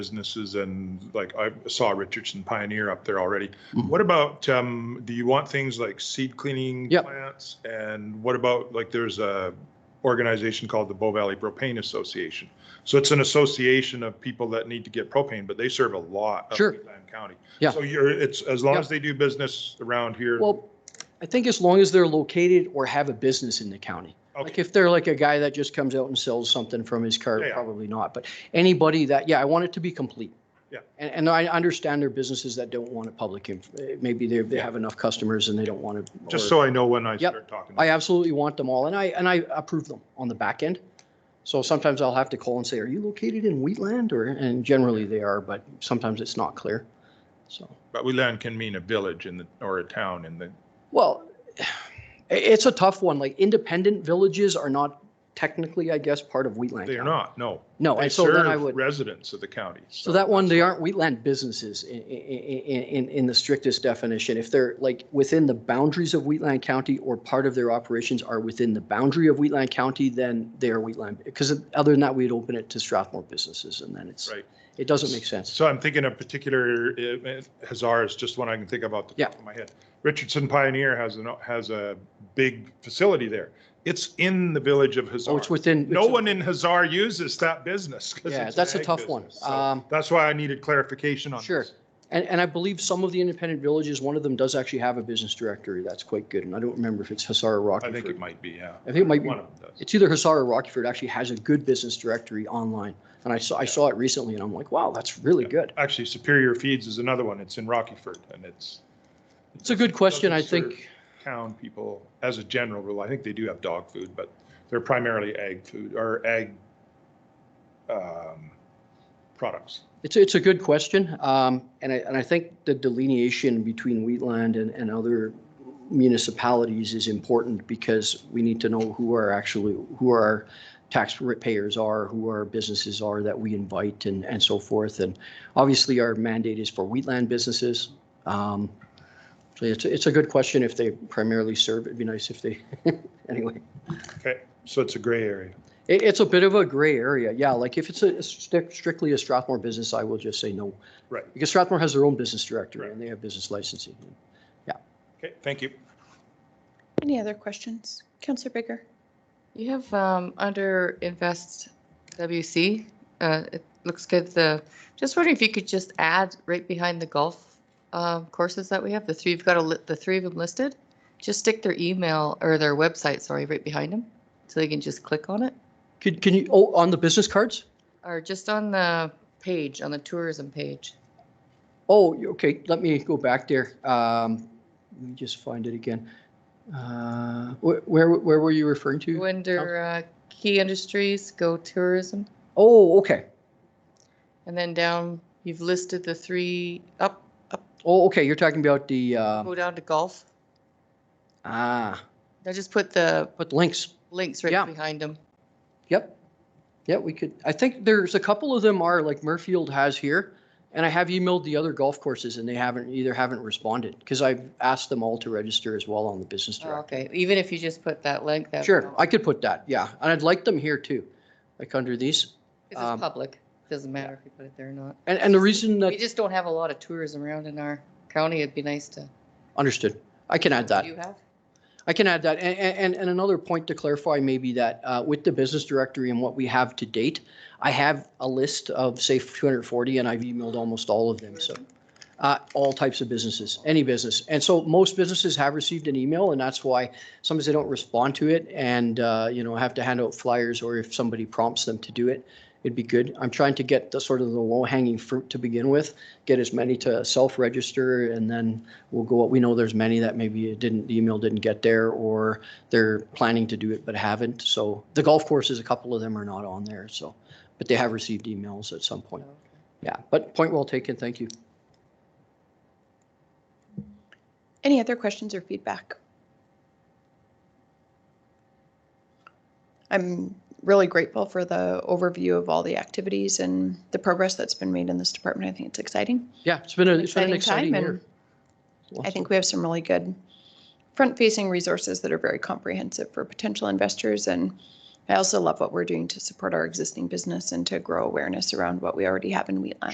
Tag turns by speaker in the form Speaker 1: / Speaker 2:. Speaker 1: businesses and like I saw Richardson Pioneer up there already.
Speaker 2: Mm-hmm.
Speaker 1: What about, um, do you want things like seed cleaning
Speaker 2: Yep.
Speaker 1: plants? And what about, like, there's a organization called the Bow Valley Propane Association. So it's an association of people that need to get propane, but they serve a lot of
Speaker 2: Sure.
Speaker 1: Lime County.
Speaker 2: Yeah.
Speaker 1: So you're, it's, as long
Speaker 2: Yep.
Speaker 1: as they do business around here.
Speaker 2: Well, I think as long as they're located or have a business in the county. Like
Speaker 1: Okay,
Speaker 2: if they're like a guy that just comes out and sells something from his car,
Speaker 1: Yeah, yeah.
Speaker 2: probably not. But anybody that, yeah, I want it to be complete.
Speaker 1: Yeah.
Speaker 2: And, and I understand there are businesses that don't want a public, inf- eh, maybe they, they have enough customers and they don't want to.
Speaker 1: just so I know when I
Speaker 2: Yep.
Speaker 1: start talking.
Speaker 2: I absolutely want them all and I, and I approve them on the back end. So sometimes I'll have to call and say, are you located in Wheatland or, and generally they are, but sometimes it's not clear. So.
Speaker 1: But we land can mean a village in the, or a town in the,
Speaker 2: Well, i- it's a tough one. Like independent villages are not technically, I guess, part of Wheatland.
Speaker 1: they are
Speaker 2: County.
Speaker 1: not, no.
Speaker 2: No,
Speaker 1: They
Speaker 2: and so then I
Speaker 1: serve
Speaker 2: would,
Speaker 1: residents of the county.
Speaker 2: so that one,
Speaker 1: that's
Speaker 2: they
Speaker 1: why.
Speaker 2: aren't wheatland businesses in, in, in, in the strictest definition. If they're like within the boundaries of Wheatland County or part of their operations are within the boundary of Wheatland County, then they are Wheatland. Because other than that, we'd open it to Strathmore businesses and then it's,
Speaker 1: Right.
Speaker 2: it doesn't make sense.
Speaker 1: So I'm thinking a particular, uh, Hazar is just one I can think of off the
Speaker 2: Yeah.
Speaker 1: top of my head. Richardson Pioneer has an, has a big facility there. It's in the village of
Speaker 2: So
Speaker 1: Hazar.
Speaker 2: Oh, it's within.
Speaker 1: No
Speaker 2: it's-
Speaker 1: one in Hazar uses that business. 'cause
Speaker 2: Yeah,
Speaker 1: it's an
Speaker 2: that's a
Speaker 1: ag
Speaker 2: tough one.
Speaker 1: business. So
Speaker 2: Um,
Speaker 1: That's why I needed clarification on this.
Speaker 2: Sure. And, and I believe some of the independent villages, one of them does actually have a business directory. That's quite good. And I don't remember if it's Hussar or
Speaker 1: I think it
Speaker 2: Rockford.
Speaker 1: might be, yeah.
Speaker 2: I think it might be,
Speaker 1: One of them does.
Speaker 2: it's either Hussar or Rockford actually has a good business directory online. And I saw, I saw it recently and I'm like, wow, that's really
Speaker 1: Yeah.
Speaker 2: good.
Speaker 1: Actually, Superior Feeds is another one. It's in Rockyford and it's
Speaker 2: It's a good question. I
Speaker 1: Doesn't serve-
Speaker 2: think,
Speaker 1: town people, as a general rule, I think they do have dog food, but they're primarily ag food or ag um, products.
Speaker 2: it's, it's a good question. Um, and I, and I think the delineation between Wheatland and, and other municipalities is important because we need to know who are actually, who are our taxpayers are, who our businesses are that we invite and, and so forth. And obviously, our mandate is for wheatland businesses. Um, So it's, it's a good question if they primarily serve, it'd be nice if they, anyway.
Speaker 1: Okay, so it's a gray area.
Speaker 2: It, it's a bit of a gray area, yeah, like if it's a strict- strictly a Strathmore business, I will just say no.
Speaker 1: Right.
Speaker 2: Because Strathmore has their own business director
Speaker 1: Right.
Speaker 2: and they have business licensing.
Speaker 1: Okay, thank you.
Speaker 3: Any other questions? Counselor Baker?
Speaker 4: You have um, under Invest WC, uh, it looks good, the, just wondering if you could just add right behind the golf um, courses that we have, the three, you've got a, li- the three of them listed, just stick their email or their website, sorry, right behind them, so they can just click on it,
Speaker 2: Could, can you, oh, on the business cards?
Speaker 4: or just on the page, on the tourism page.
Speaker 2: Oh, you- okay, let me go back there. Um, Let me just find it again. Uh, wh- Where, where were you referring
Speaker 4: Go
Speaker 2: to?
Speaker 4: under uh, key industries, go tourism,
Speaker 2: Oh, okay.
Speaker 4: and then down, you've listed the three, up, up,
Speaker 2: Oh, okay, you're talking about the, um,
Speaker 4: go down to golf.
Speaker 2: ah,
Speaker 4: I just put the
Speaker 2: but links.
Speaker 4: links
Speaker 2: Yeah.
Speaker 4: right behind them.
Speaker 2: Yep. Yeah, we could, I think there's a couple of them are like Murfield has here. And I have emailed the other golf courses and they haven't, either haven't responded because I've asked them all to register as well on the business
Speaker 4: Oh,
Speaker 2: directory.
Speaker 4: Okay, even if you just put that link, that.
Speaker 2: Sure, I could put that, yeah. And I'd like them here too, like under these.
Speaker 4: Because
Speaker 2: um,
Speaker 4: it's public, doesn't matter if you put it there or not.
Speaker 2: And, and the reason that,
Speaker 4: We just don't have a lot of tourism around in our county, it'd be nice to.
Speaker 2: understood, I can add that.
Speaker 4: You have?
Speaker 2: I can add that. And, and, and another point to clarify maybe that uh, with the business directory and what we have to date, I have a list of say 240 and I've emailed almost all of them. So uh, all types of businesses, any business. And so most businesses have received an email and that's why sometimes they don't respond to it and, uh, you know, have to hand out flyers or if somebody prompts them to do it, it'd be good. I'm trying to get the sort of the low hanging fruit to begin with, get as many to self-register and then we'll go, we know there's many that maybe it didn't, the email didn't get there or they're planning to do it but haven't. So the golf courses, a couple of them are not on there, so, but they have received emails at
Speaker 4: Oh,
Speaker 2: some point. Yeah, but point well taken, thank you.
Speaker 3: Any other questions or feedback? I'm really grateful for the overview of all the activities and the progress that's been made in this department. I think it's exciting.
Speaker 2: Yeah, it's been, a- it's been an exciting
Speaker 3: Exciting time, and
Speaker 2: year.
Speaker 3: I think we have some really good front-facing resources that are very comprehensive for potential investors. And I also love what we're doing to support our existing business and to grow awareness around what we already have in Wheatland.